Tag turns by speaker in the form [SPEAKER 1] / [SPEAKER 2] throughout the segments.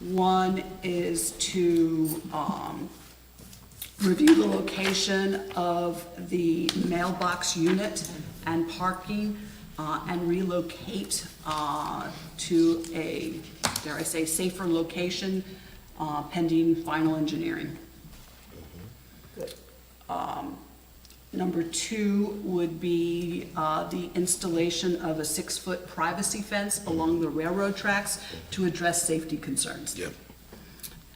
[SPEAKER 1] One is to um, review the location of the mailbox unit and parking uh, and relocate uh, to a, dare I say, safer location uh, pending final engineering. Um, Number two would be uh, the installation of a six-foot privacy fence along the railroad tracks to address safety concerns.
[SPEAKER 2] Yep.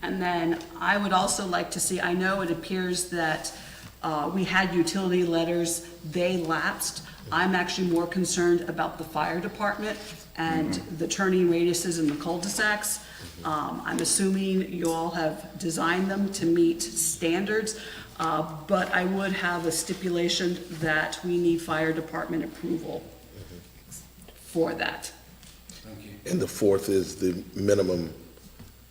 [SPEAKER 1] And then I would also like to see, I know it appears that uh, we had utility letters, they lapsed. I'm actually more concerned about the fire department and the turning radiuses and the cul-de-sacs. Um, I'm assuming you all have designed them to meet standards, uh, but I would have a stipulation that we need fire department approval for that.
[SPEAKER 2] And the fourth is the minimum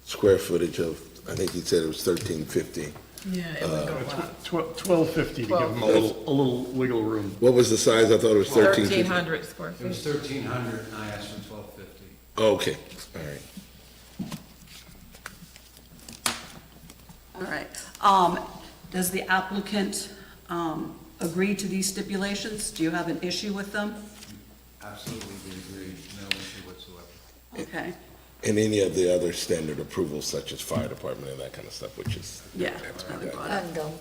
[SPEAKER 2] square footage of, I think he said it was thirteen fifty.
[SPEAKER 3] Yeah, it would go up.
[SPEAKER 4] Twelve fifty to give them a little, a little wiggle room.
[SPEAKER 2] What was the size? I thought it was thirteen
[SPEAKER 3] Thirteen
[SPEAKER 2] fifty.
[SPEAKER 3] hundred square
[SPEAKER 5] It was
[SPEAKER 3] feet.
[SPEAKER 5] thirteen hundred and I asked for twelve fifty.
[SPEAKER 2] Oh, Okay, all right.
[SPEAKER 1] All right. Um, Does the applicant um, agree to these stipulations? Do you have an issue with them?
[SPEAKER 5] Absolutely, we agree, no issue whatsoever.
[SPEAKER 1] Okay,
[SPEAKER 2] And any of the other standard approvals such as fire department and that kind of stuff, which is.
[SPEAKER 1] yeah.
[SPEAKER 2] that's
[SPEAKER 1] I
[SPEAKER 2] what I
[SPEAKER 1] would
[SPEAKER 2] got.
[SPEAKER 1] brought up.
[SPEAKER 6] And um,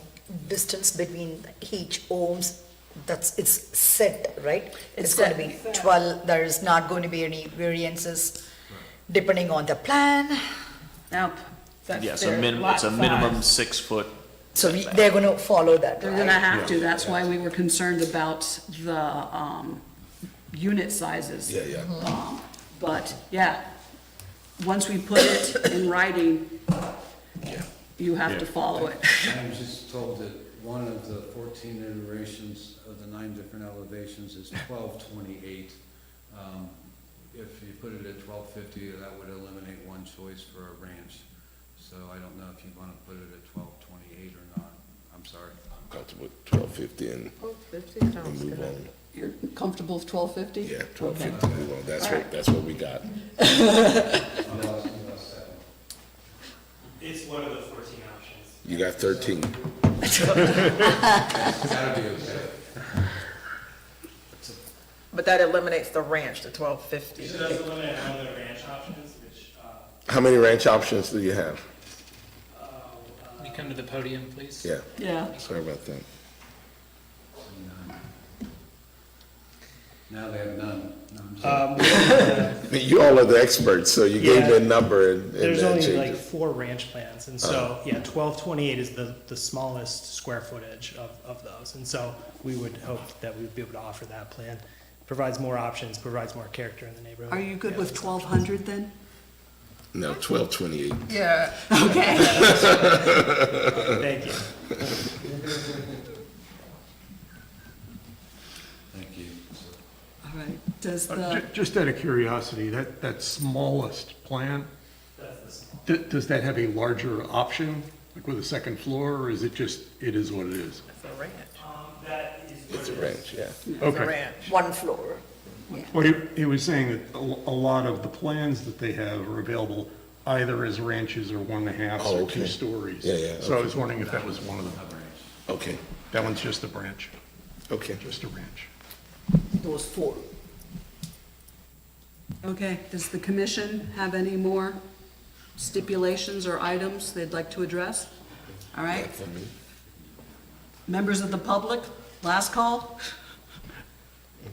[SPEAKER 6] distance between each ohms, that's, it's set, right?
[SPEAKER 1] It's
[SPEAKER 6] It's going to be
[SPEAKER 1] set.
[SPEAKER 6] 12, there is not going to be any variances depending on the plan.
[SPEAKER 1] Now,
[SPEAKER 3] That's
[SPEAKER 7] Yes, a
[SPEAKER 3] their
[SPEAKER 7] minimum,
[SPEAKER 3] lot
[SPEAKER 7] it's a
[SPEAKER 3] size.
[SPEAKER 7] minimum six-foot,
[SPEAKER 6] So we- they're going to follow that,
[SPEAKER 1] they're gonna
[SPEAKER 6] right?
[SPEAKER 1] have to, that's why we were concerned about the um, unit sizes.
[SPEAKER 2] Yeah, yeah.
[SPEAKER 1] Um, But, yeah, once we put it in writing, you have to follow it.
[SPEAKER 5] I was just told that one of the fourteen iterations of the nine different elevations is twelve twenty-eight. Um, If you put it at twelve fifty, that would eliminate one choice for a ranch. So I don't know if you wanna put it at twelve twenty-eight or not, I'm sorry.
[SPEAKER 2] Comfortable with twelve fifty and and move on.
[SPEAKER 1] You're comfortable with twelve fifty?
[SPEAKER 2] Yeah, twelve fifty, move on. That's what, that's what we got.
[SPEAKER 5] Unless- unless that one.
[SPEAKER 8] It's one of the fourteen options.
[SPEAKER 2] You got thirteen.
[SPEAKER 5] That'd be okay.
[SPEAKER 3] But that eliminates the ranch, the twelve fifty.
[SPEAKER 8] She does eliminate one of the ranch options, which, uh,
[SPEAKER 2] How many ranch options do you have?
[SPEAKER 8] uh, uh,
[SPEAKER 9] Can you come to the podium, please?
[SPEAKER 2] Yeah,
[SPEAKER 1] Yeah,
[SPEAKER 2] sorry about that.
[SPEAKER 5] None. Now they have none. No, I'm just-
[SPEAKER 2] I mean, you all are the experts, so you gave me a number and. and
[SPEAKER 9] There's
[SPEAKER 2] that
[SPEAKER 9] only like
[SPEAKER 2] changes. Uh-huh.
[SPEAKER 9] four ranch plans, and so, yeah, twelve twenty-eight is the, the smallest square footage of, of those. And so we would hope that we would be able to offer that plan. Provides more options, provides more character in the neighborhood.
[SPEAKER 1] are you good
[SPEAKER 9] Yeah.
[SPEAKER 1] with twelve hundred then?
[SPEAKER 2] No, twelve twenty-eight.
[SPEAKER 3] Yeah,
[SPEAKER 1] Okay.
[SPEAKER 9] Thank you.
[SPEAKER 5] Thank you.
[SPEAKER 1] All right, does
[SPEAKER 4] Uh,
[SPEAKER 1] the,
[SPEAKER 4] ju- Just out of curiosity, that, that smallest plan,
[SPEAKER 8] that's the small.
[SPEAKER 4] d- does that have a larger option? Like with a second floor, or is it just, it is what it is?
[SPEAKER 3] it's a ranch,
[SPEAKER 8] Um, that is. what
[SPEAKER 2] It's a
[SPEAKER 8] it is.
[SPEAKER 2] ranch, yeah.
[SPEAKER 3] it's a
[SPEAKER 4] Okay.
[SPEAKER 3] ranch.
[SPEAKER 6] One floor.
[SPEAKER 4] Well, he, he was saying that a lo- a lot of the plans that they have are available either as ranches or one and a half
[SPEAKER 2] Oh,
[SPEAKER 4] or
[SPEAKER 2] okay.
[SPEAKER 4] two stories.
[SPEAKER 2] Yeah, yeah,
[SPEAKER 4] So I was wondering if that was one of them.
[SPEAKER 2] Okay,
[SPEAKER 4] That one's just a branch,
[SPEAKER 2] okay.
[SPEAKER 4] just a ranch.
[SPEAKER 6] Those four.
[SPEAKER 1] okay, does the commission have any more stipulations or items they'd like to address? All right, members of the public, last call?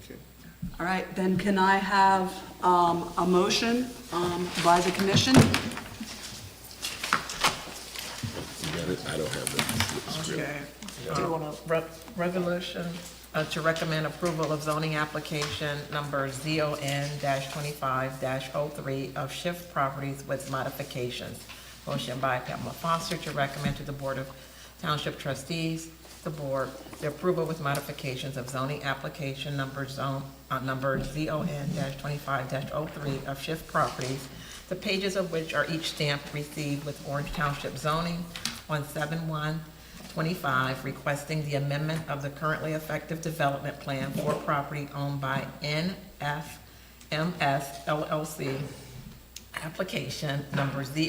[SPEAKER 2] Okay.
[SPEAKER 1] All right, then can I have um, a motion um, by the commission?
[SPEAKER 2] You got it? I don't have that. It's real.
[SPEAKER 3] Okay. Do you want a re- resolution uh, to recommend approval of zoning application number ZON twenty-five 3 of Shift Properties with modifications? Motion by Pamela Foster to recommend to the Board of Township Trustees, the board, the approval with modifications of zoning application number zone, uh, number ZON twenty-five 3 of Shift Properties, the pages of which are each stamped received with Orange Township zoning on seven-one 25, requesting the amendment of the currently effective development plan for property owned by NFMS LLC, application number Z